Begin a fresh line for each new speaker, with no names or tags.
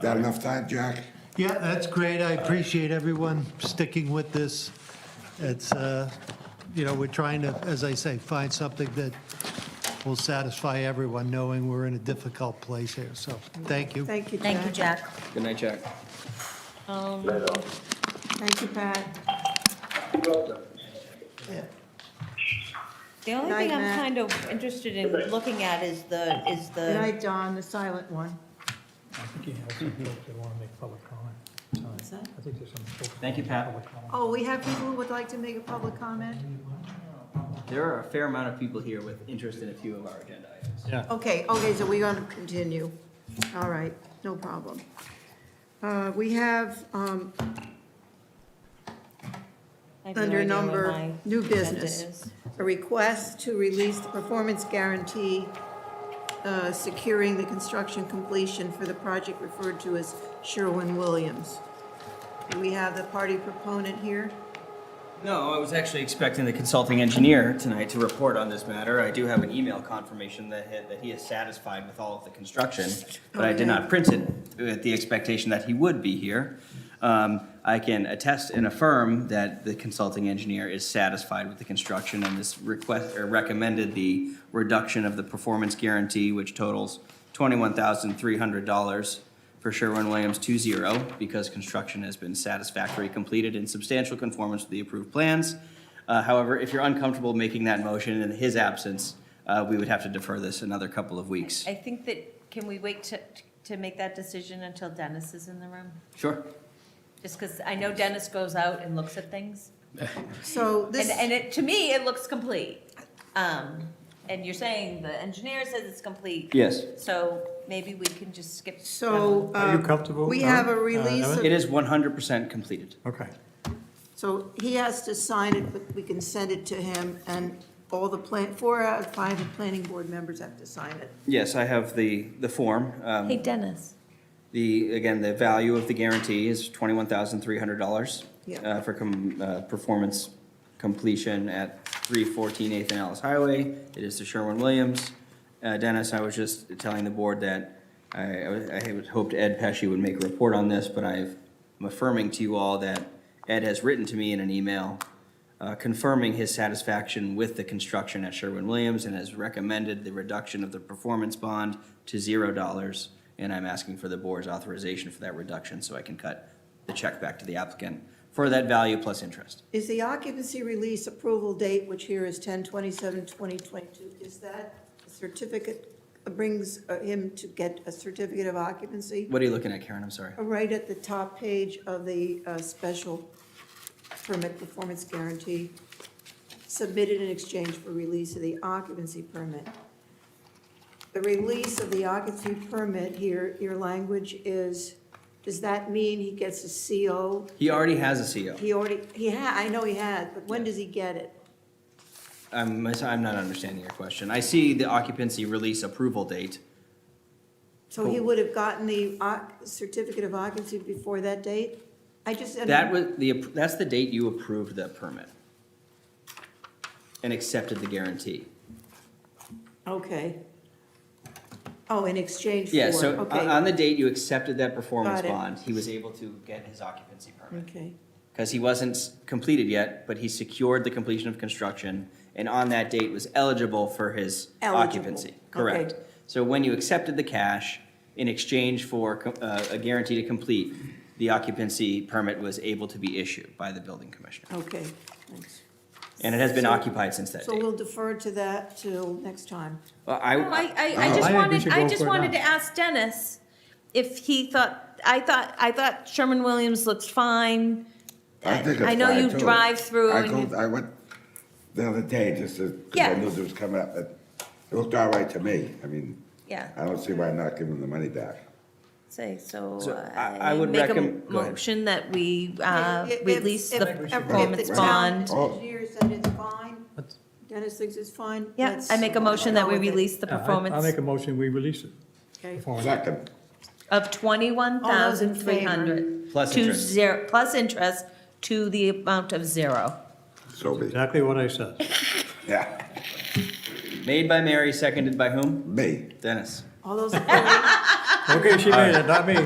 That enough time, Jack?
Yeah, that's great. I appreciate everyone sticking with this. It's, uh, you know, we're trying to, as I say, find something that will satisfy everyone, knowing we're in a difficult place here. So, thank you.
Thank you, Jack.
Thank you, Jack.
Good night, Jack.
Um,
Thank you, Pat.
The only
Night,
thing I'm
Matt.
kind of interested in looking at is the, is
Good
the,
night, Don, the silent one.
Thank you, Pat.
Oh, we have people who would like to make a public comment?
There are a fair amount of people here with interest in a few of our agenda items.
Okay, okay, so we're going to continue. All right, no problem. Uh, We have, um,
I have no
under
idea what
number,
my
new
agenda
business,
is.
a request to release the performance guarantee uh, securing the construction completion for the project referred to as Sherwin-Williams. Do we have the party proponent here?
No, I was actually expecting the consulting engineer tonight to report on this matter. I do have an email confirmation that he, that he is satisfied with all of the construction, but I did not print it with the expectation that he would be here. Um, I can attest and affirm that the consulting engineer is satisfied with the construction and this request, or recommended the reduction of the performance guarantee, which totals twenty-one thousand three hundred dollars for Sherwin-Williams 2-0 because construction has been satisfactorily completed in substantial conformance with the approved plans. Uh, However, if you're uncomfortable making that motion in his absence, uh, we would have to defer this another couple of weeks.
I think that, can we wait to, to make that decision until Dennis is in the room?
Sure.
Just because I know Dennis goes out and looks at things.
So this,
And, and it, to me, it looks complete. Um, and you're saying the engineer says it's complete.
Yes.
So maybe we can just skip. that
so.
one.
Are you
um,
comfortable,
We
Don?
have a
Uh,
release
Emma?
of
It is 100% completed.
Okay.
So he has to sign it, but we can send it to him, and all the plan, four out of five of planning board members have to sign it.
Yes, I have the, the form. Um,
Hey, Dennis.
The, again, the value of the guarantee is $21,300
Yeah.
uh, for com- uh, performance completion at 314 Nathan Ellis Highway. It is to Sherwin-Williams. Uh, Dennis, I was just telling the board that I- I was- I had hoped Ed Pesci would make a report on this, but I've- I'm affirming to you all that Ed has written to me in an email uh, confirming his satisfaction with the construction at Sherwin-Williams and has recommended the reduction of the performance bond to zero dollars. And I'm asking for the board's authorization for that reduction so I can cut the check back to the applicant for that value plus interest.
Is the occupancy release approval date, which here is 10 27 2022, is that a certificate, brings uh, him to get a certificate of occupancy?
What are you looking at, Karen? I'm sorry.
Right at the top page of the uh, special permit performance guarantee, submitted in exchange for release of the occupancy permit. The release of the occupancy permit here, your language is, does that mean he gets a CO?
He already has a CO.
He already, he had, I know he had, but when does he get it?
I'm, mis- I'm not understanding your question. I see the occupancy release approval date.
So he would have gotten the oc- certificate of occupancy before that date? I just.
That was the, app- that's the date you approved the permit and accepted the guarantee.
Okay. Oh, in exchange for, okay.
Yeah, so uh, on- on the date you accepted that performance
Got it.
bond, he was able to get his occupancy permit.
Okay,
Because he wasn't s- completed yet, but he secured the completion of construction, and on that date was eligible for his
Eligible,
occupancy.
okay.
Correct. So when you accepted the cash in exchange for co- uh, a guarantee to complete, the occupancy permit was able to be issued by the building commissioner.
okay, thanks.
And it has been occupied since that
So
date.
we'll defer to that till next time.
Well,
No, I, I, I
I,
Oh, I
just
think we
wanted,
should
I
go
just
for it
wanted
now.
to ask Dennis if he thought, I thought, I thought Sherman-Williams looked fine.
I think it's
I know
fine,
you
too.
drive through
I
and you-
go- I went the other day just to, because I
Yeah.
knew this was coming up, but it looked all right to me. I mean, I
Yeah,
don't see why not give them the money back.
say, so
So I- I
I
would
make a
recomm- go ahead.
motion that we uh,
If- if-
release the
if- if
performance
the town
bond.
Oh.
Engineer said it's fine, Dennis thinks it's fine.
Yeah,
let's
I make a motion that
go
we
with it.
release the
I- I'll
performance
make a motion, we release it.
Okay.
Performance.
Second,
of twenty-one thousand three
favor?
hundred.
Plus
to
interest.
zero- Plus interest to the amount of zero.
so be,
Exactly what I said.
yeah,
made by Mary, seconded by whom?
me.
Dennis.
All those in favor?
Okay, she made it, not me.